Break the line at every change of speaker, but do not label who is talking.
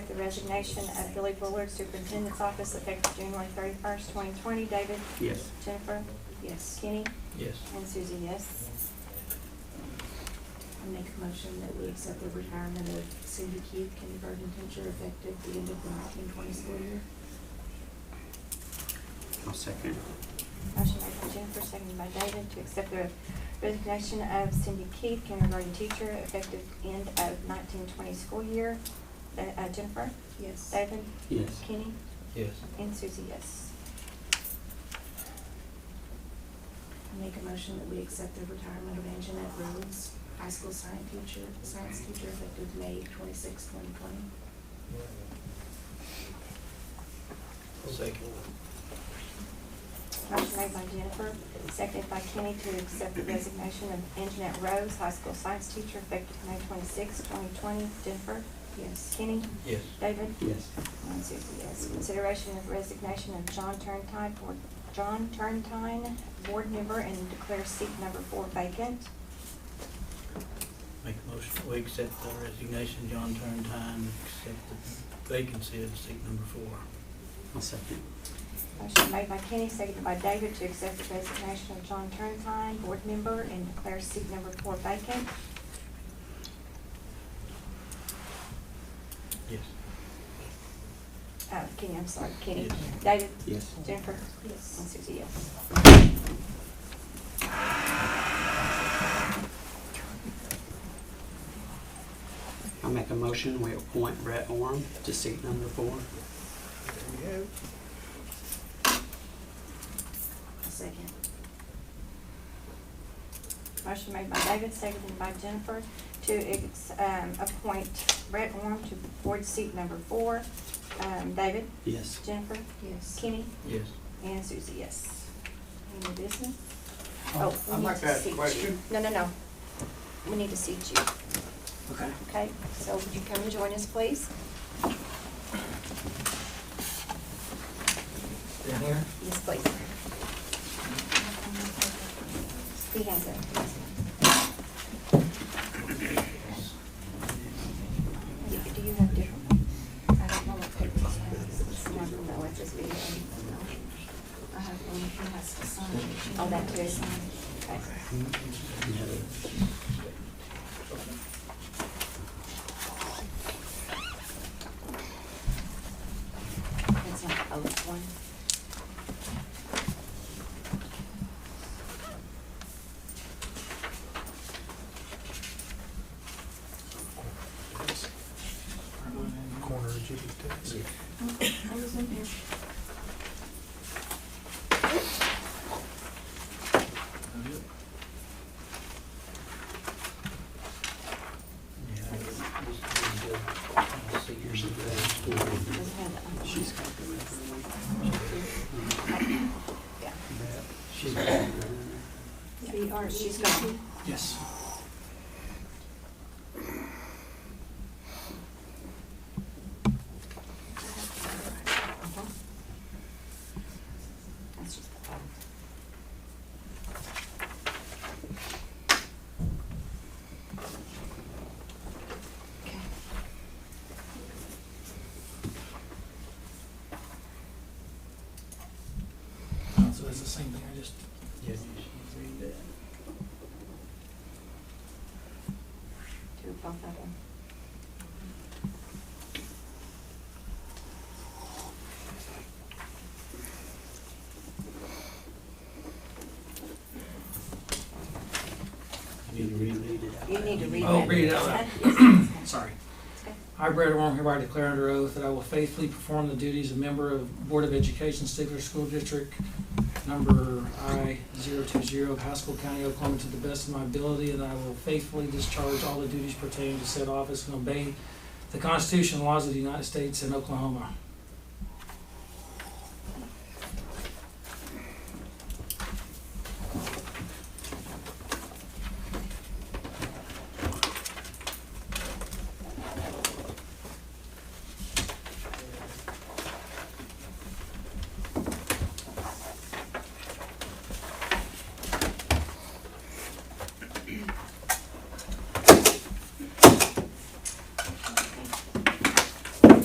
the resignation of Billy Bullard, Superintendent's Office, effective January thirty-first, twenty twenty. David?
Yes.
Jennifer?
Yes.
Kenny?
Yes.
And Susie, yes.
I make a motion that we accept the retirement of Cindy Keith, kindergarten teacher, effective the end of the nineteen twenty school year.
I'll second.
Motion made by Jennifer, seconded by David, to accept the resignation of Cindy Keith, kindergarten teacher, effective end of nineteen twenty school year. Uh, uh, Jennifer?
Yes.
David?
Yes.
Kenny?
Yes.
And Susie, yes.
I make a motion that we accept the retirement of Anjanette Rhodes, high school science teacher, science teacher, effective May twenty-sixth, twenty twenty.
Second.
Motion made by Jennifer, seconded by Kenny to accept the resignation of Anjanette Rose, high school science teacher, effective May 26, twenty twenty. Jennifer?
Yes.
Kenny?
Yes.
David?
Yes.
And Susie, yes. Consideration of resignation of John Turntine, board, John Turntine, board member, and declare seat number four vacant.
Make a motion, that we accept the resignation, John Turntine, accept the vacancy of seat number four.
I'll second.
Motion made by Kenny, seconded by David to accept the resignation of John Turntine, board member, and declare seat number four vacant.
Yes.
Uh, Kenny, I'm sorry, Kenny.
Yes.
David?
Yes.
Jennifer? And
Yes.
Susie, yes.
I'll make a motion, we appoint Brett Orm to seat number four.
A second.
Motion made by David, seconded by Jennifer, to ex- um, appoint Brett Orm to board seat number four. Um, David,
Yes.
Jennifer,
Yes.
Kenny,
Yes.
and Susie, yes. Any business?
Um, I'd
Oh, we need
like to ask
seat
a
you.
question.
No, no, no. We need to seat you,
Okay.
okay? So would you come and join us, please?
Down here?
Yes, please. He has it. Do do you have different ones? I don't know what papers I have. It's not, no, it's just video.
I have one that has to sign.
Oh, that too. Okay. That's not the oath one.
Corner of Jiffy Tex.
I was in here.
Yeah. I was- I was doing good. I see yours is there.
Does it have the oath?
She's got the record.
Yeah.
Brett, She's uh, got the record.
B R E T. gone.
Yes.
Uh-huh. That's just the oath. Okay.
So it's the same thing, I just
Yeah, you should read that.
Do both of them.
You need to reread it.
You need to read that.
I'll Oh, read it out
Yes,
loud.
yes, yes, yes.
Sorry.
It's okay.
I, Brad Wong, hereby declare under oath that I will faithfully perform the duties of member of Board of Education, Stigler School District, number I 020 of Haskell County, Oklahoma, to the best of my ability, and I will faithfully discharge all the duties pertaining to said office and obey the Constitution and laws of the United States and Oklahoma.